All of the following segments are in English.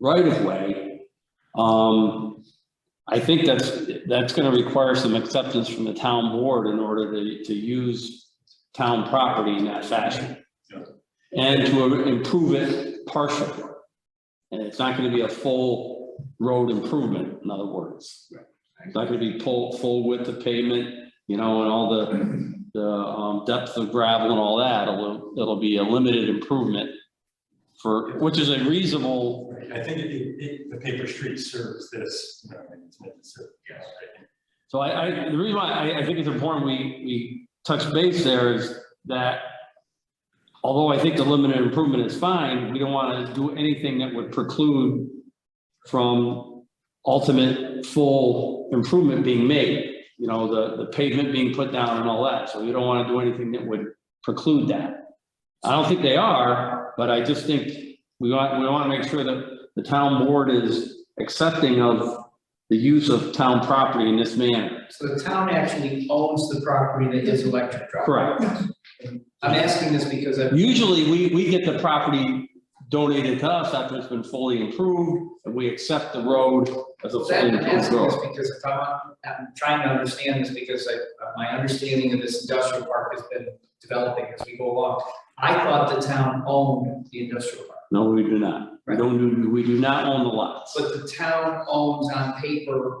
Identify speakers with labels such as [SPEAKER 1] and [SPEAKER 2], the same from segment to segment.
[SPEAKER 1] right of way. Um, I think that's, that's gonna require some acceptance from the town board in order to, to use town property in that fashion.
[SPEAKER 2] Yeah.
[SPEAKER 1] And to improve it partially. And it's not gonna be a full road improvement, in other words.
[SPEAKER 2] Right.
[SPEAKER 1] It's not gonna be full, full width of pavement, you know, and all the, the, um, depth of gravel and all that. It'll, it'll be a limited improvement for, which is a reasonable
[SPEAKER 3] Right, I think it, it, the paper street serves this, you know, and it's meant to serve, yeah, right,
[SPEAKER 1] So I, I, the reason why I, I think it's important we, we touch base there is that although I think the limited improvement is fine, we don't want to do anything that would preclude from ultimate full improvement being made, you know, the, the pavement being put down and all that. So we don't want to do anything that would preclude that. I don't think they are, but I just think we want, we want to make sure that the town board is accepting of the use of town property in this manner.
[SPEAKER 4] So the town actually owns the property that is electric drop.
[SPEAKER 1] Correct.
[SPEAKER 4] I'm asking this because I,
[SPEAKER 1] Usually, we, we get the property donated to us after it's been fully improved, and we accept the road as a fully
[SPEAKER 4] I'm
[SPEAKER 1] improved
[SPEAKER 4] asking this
[SPEAKER 1] road.
[SPEAKER 4] because if I'm, I'm trying to understand this because I, my understanding of this industrial park has been developing as we go along. I thought the town owned the industrial park,
[SPEAKER 1] No, we do not. We don't do, we do not own the lots.
[SPEAKER 4] but the town owns on paper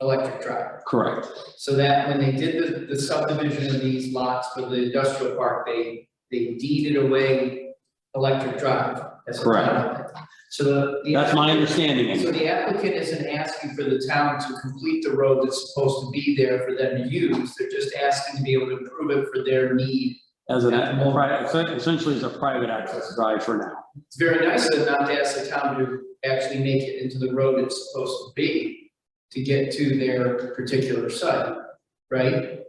[SPEAKER 4] electric drive.
[SPEAKER 1] Correct.
[SPEAKER 4] So that when they did the, the subdivision of these lots for the industrial park, they, they deeded away electric drive as a
[SPEAKER 1] Correct.
[SPEAKER 4] town. So the. the-
[SPEAKER 1] That's my understanding.
[SPEAKER 4] So
[SPEAKER 1] anyway.
[SPEAKER 4] the applicant isn't asking for the town to complete the road that's supposed to be there for them to use, they're just asking to be able to improve it for their need.
[SPEAKER 1] As an, essentially as a private access drive for now.
[SPEAKER 4] It's very nice of them not to ask the town to actually make it into the road it's supposed to be to get to their particular site, right?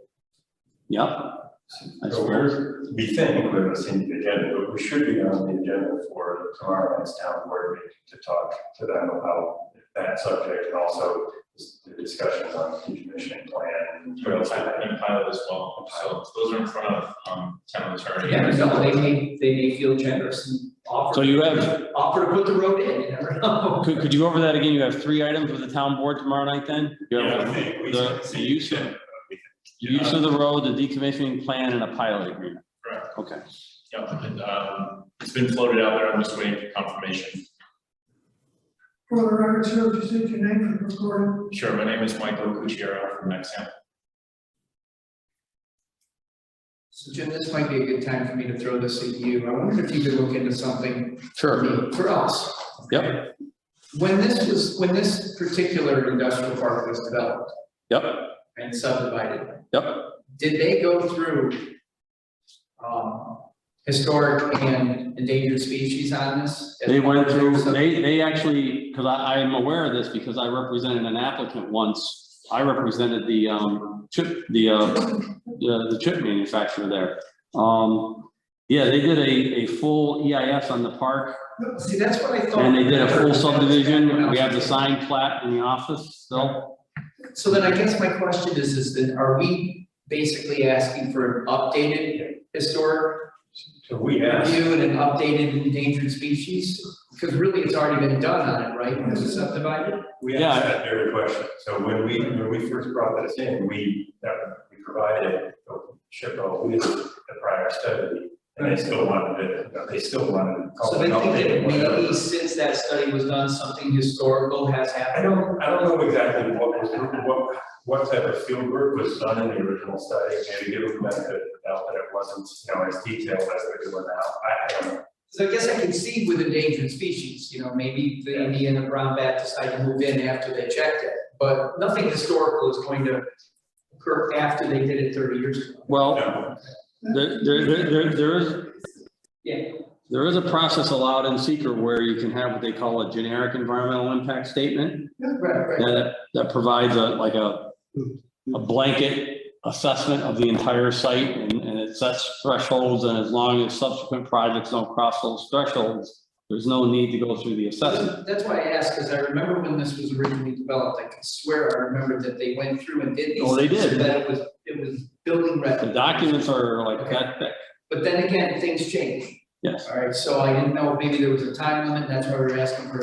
[SPEAKER 1] Yep. I
[SPEAKER 3] So
[SPEAKER 1] suppose.
[SPEAKER 3] we're, we think we're listening to the agenda, but we should be on the agenda for tomorrow night's town board meeting to talk to them about that subject and also the discussions on decommissioning plan.
[SPEAKER 5] Trail pilot and pilot as well, so those are in front of, um, town attorney.
[SPEAKER 4] Yeah, so they may, they may feel generous and offer.
[SPEAKER 1] So you have-
[SPEAKER 4] Offer to put the road in, you never know.
[SPEAKER 1] Could, could you go over that again? You have three items with the town board tomorrow night then? You have
[SPEAKER 3] Yeah, we think, we
[SPEAKER 1] The-
[SPEAKER 3] think-
[SPEAKER 1] the use of-
[SPEAKER 3] we think-
[SPEAKER 1] Use of the road, the decommissioning plan, and a pilot agreement.
[SPEAKER 5] Correct.
[SPEAKER 1] Okay.
[SPEAKER 5] Yeah, and, um, it's been floated out there, I'm just waiting for confirmation.
[SPEAKER 6] For the record, sir, if you state your name for the recording.
[SPEAKER 5] Sure, my name is Michael Cucchiaro from Nexamp.
[SPEAKER 4] So Jim, this might be a good time for me to throw this at you, I wondered if you could look into something for me, for us.
[SPEAKER 1] Yep.
[SPEAKER 4] When this was, when this particular industrial park was developed
[SPEAKER 1] Yep,
[SPEAKER 4] and subdivided,
[SPEAKER 1] yep.
[SPEAKER 4] did they go through um, historic and endangered species on this?
[SPEAKER 1] They went through, they, they actually, because I, I am aware of this because I represented an applicant once. I represented the, um, chip, the, uh, the the chip manufacturer there. Um, yeah, they did a, a full EIS on the park
[SPEAKER 4] See, that's what I thought.
[SPEAKER 1] and they did a full subdivision. We have the signed plat in the office still.
[SPEAKER 4] So then I guess my question is, is that are we basically asking for an updated historic
[SPEAKER 3] So we asked,
[SPEAKER 4] review and an updated endangered species? Because really, it's already been done on it, right, because it's subdivided?
[SPEAKER 3] we
[SPEAKER 1] Yeah.
[SPEAKER 3] asked that very question. So when we, when we first brought this in, we, that we provided SHPO with the prior study. And they still wanted it, they still wanted. to call
[SPEAKER 4] So
[SPEAKER 3] it
[SPEAKER 4] they
[SPEAKER 3] an
[SPEAKER 4] think
[SPEAKER 3] update,
[SPEAKER 4] that
[SPEAKER 3] whatever.
[SPEAKER 4] maybe since that study was done, something historical has
[SPEAKER 3] I
[SPEAKER 4] happened?
[SPEAKER 3] don't, I don't know exactly what was, what, what type of field work was done in the original study, maybe give them the benefit of the doubt that it wasn't, you know, as detailed as they're doing now, I don't know.
[SPEAKER 4] So I guess I can see with endangered species, you know, maybe the Indian and brown bat decide to move in after they checked it. But nothing historical is going to occur after they did it thirty years ago.
[SPEAKER 1] Well,
[SPEAKER 3] No,
[SPEAKER 1] there, there, there- there, there is,
[SPEAKER 4] Yeah,
[SPEAKER 1] There is a process allowed in seeker where you can have what they call a generic environmental impact statement
[SPEAKER 4] right, right.
[SPEAKER 1] that, that provides a, like a, a blanket assessment of the entire site and, and it sets thresholds and as long as subsequent projects don't cross those thresholds, there's no need to go through the assessment.
[SPEAKER 4] That's why I asked, because I remember when this was originally developed, I can swear I remember that they went through and did these.
[SPEAKER 1] Oh, they
[SPEAKER 4] things, so
[SPEAKER 1] did.
[SPEAKER 4] That it was, it was building
[SPEAKER 1] The
[SPEAKER 4] record.
[SPEAKER 1] documents are like that thick.
[SPEAKER 4] But then again, things change.
[SPEAKER 1] Yes.
[SPEAKER 4] All right, so I didn't know, maybe there was a time limit, and that's why we were asking for